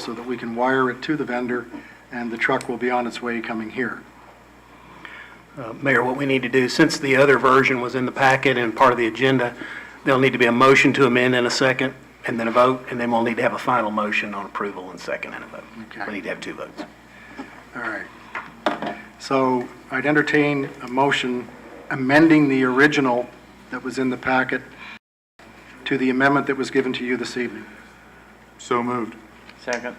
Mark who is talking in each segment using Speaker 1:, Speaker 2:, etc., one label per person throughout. Speaker 1: so that we can wire it to the vendor, and the truck will be on its way coming here.
Speaker 2: Uh, Mayor, what we need to do, since the other version was in the packet and part of the agenda, there'll need to be a motion to amend in a second, and then a vote, and then we'll need to have a final motion on approval and second and a vote.
Speaker 1: Okay.
Speaker 2: We need to have two votes.
Speaker 1: All right. So I'd entertain a motion amending the original that was in the packet to the amendment that was given to you this evening.
Speaker 3: So moved.
Speaker 4: Second.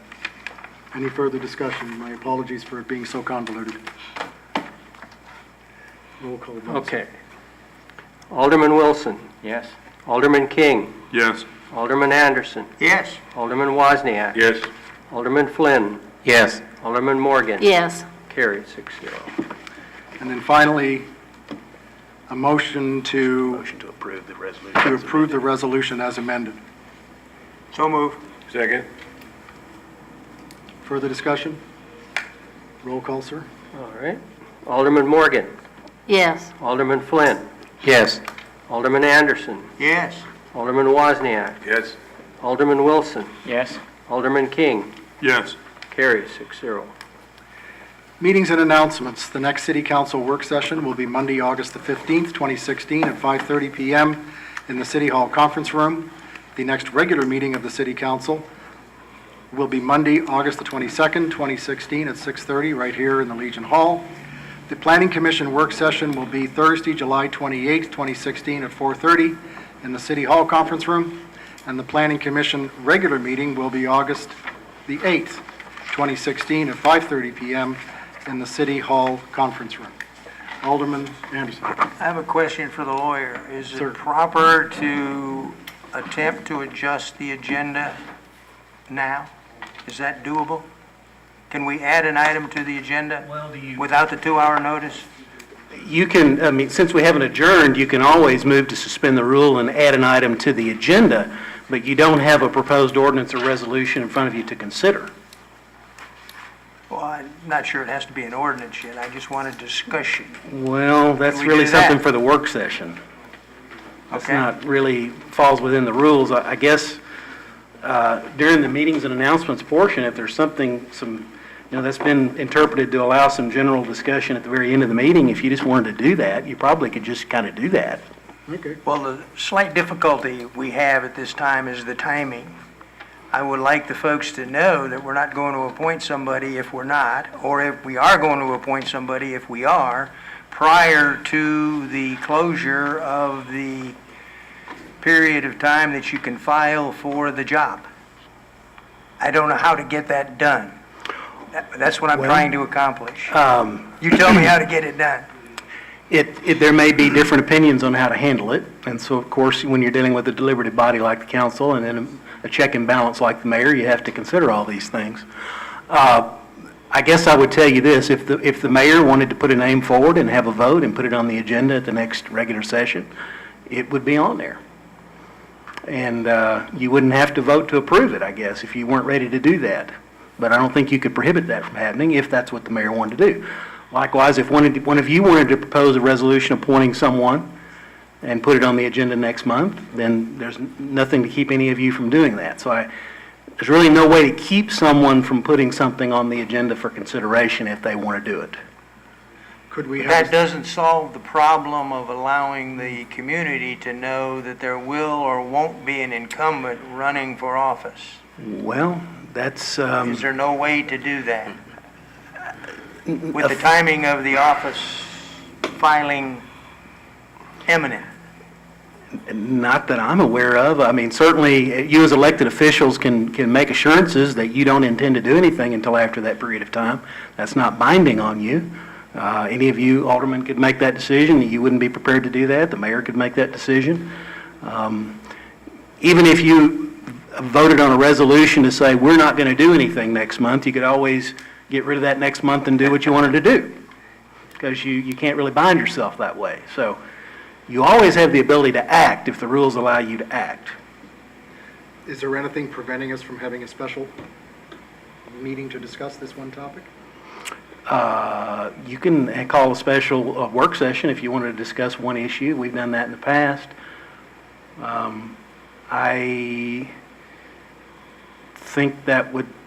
Speaker 1: Any further discussion? My apologies for it being so convoluted. Roll call vote.
Speaker 5: Okay. Alderman Wilson,
Speaker 4: Yes.
Speaker 5: Alderman King,
Speaker 3: Yes.
Speaker 5: Alderman Anderson. Yes. Alderman Wozniak.
Speaker 3: Yes.
Speaker 5: Alderman Flynn,
Speaker 4: Yes.
Speaker 5: Alderman Morgan.
Speaker 6: Yes,
Speaker 5: Carried six zero.
Speaker 1: And then finally, a motion to
Speaker 2: Motion to approve the resolution.
Speaker 1: to approve the resolution as amended.
Speaker 3: So moved. Second.
Speaker 1: Further discussion? Roll call, sir.
Speaker 5: All right. Alderman Morgan,
Speaker 6: yes,
Speaker 5: Alderman Flynn,
Speaker 4: Yes.
Speaker 5: Alderman Anderson,
Speaker 3: Yes.
Speaker 5: Alderman Wozniak,
Speaker 3: Yes.
Speaker 5: Alderman Wilson,
Speaker 4: Yes.
Speaker 5: Alderman King.
Speaker 3: Yes.
Speaker 5: Carried six zero.
Speaker 1: Meetings and announcements. The next city council work session will be Monday, August the 15th, 2016, at 5:30 PM in the City Hall Conference Room. The next regular meeting of the city council will be Monday, August the 22nd, 2016, at 6:30, right here in the Legion Hall. The planning commission work session will be Thursday, July 28th, 2016, at 4:30 in the City Hall Conference Room. And the planning commission regular meeting will be August the 8th, 2016, at 5:30 PM in the City Hall Conference Room. Alderman Anderson.
Speaker 7: I have a question for the lawyer. Is
Speaker 1: Sir.
Speaker 7: it proper to attempt to adjust the agenda now? Is that doable? Can we add an item to the agenda
Speaker 2: Well, do you?
Speaker 7: without the two-hour notice?
Speaker 2: You can, I mean, since we haven't adjourned, you can always move to suspend the rule and add an item to the agenda, but you don't have a proposed ordinance or resolution in front of you to consider.
Speaker 7: Well, I'm not sure it has to be an ordinance yet. I just want a discussion.
Speaker 2: Well, that's
Speaker 7: We
Speaker 2: really
Speaker 7: do that.
Speaker 2: something for the work session. That's
Speaker 7: Okay.
Speaker 2: not really falls within the rules. I I guess uh, during the meetings and announcements portion, if there's something, some, you know, that's been interpreted to allow some general discussion at the very end of the meeting, if you just wanted to do that, you probably could just kind of do that.
Speaker 1: Okay.
Speaker 7: Well, the slight difficulty we have at this time is the timing. I would like the folks to know that we're not going to appoint somebody if we're not, or if we are going to appoint somebody if we are, prior to the closure of the period of time that you can file for the job. I don't know how to get that done. That- That's what I'm
Speaker 2: Well-
Speaker 7: trying to accomplish.
Speaker 2: Um,
Speaker 7: You tell me how to get it done.
Speaker 2: It, it, there may be different opinions on how to handle it, and so, of course, when you're dealing with a deliberative body like the council, and then a check and balance like the mayor, you have to consider all these things. Uh, I guess I would tell you this, if the, if the mayor wanted to put a name forward and have a vote and put it on the agenda at the next regular session, it would be on there. And, uh, you wouldn't have to vote to approve it, I guess, if you weren't ready to do that. But I don't think you could prohibit that from happening if that's what the mayor wanted to do. Likewise, if one of, one of you wanted to propose a resolution appointing someone and put it on the agenda next month, then there's nothing to keep any of you from doing that. So I, there's really no way to keep someone from putting something on the agenda for consideration if they want to do it.
Speaker 1: Could we
Speaker 7: But
Speaker 1: have,
Speaker 7: That doesn't solve the problem of allowing the community to know that there will or won't be an incumbent running for office.
Speaker 2: Well, that's, um,
Speaker 7: Is there no way to do that? With the timing of the office filing imminent?
Speaker 2: Not that I'm aware of. I mean, certainly, uh, you as elected officials can, can make assurances that you don't intend to do anything until after that period of time. That's not binding on you. Uh, Any of you aldermen could make that decision, you wouldn't be prepared to do that, the mayor could make that decision. Um, Even if you voted on a resolution to say, we're not going to do anything next month, you could always get rid of that next month and do what you wanted to do, because you, you can't really bind yourself that way. So you always have the ability to act if the rules allow you to act.
Speaker 1: is there anything preventing us from having a special meeting to discuss this one topic?
Speaker 2: Uh, You can call a special uh, work session if you wanted to discuss one issue. We've done that in the past. Um, I think that would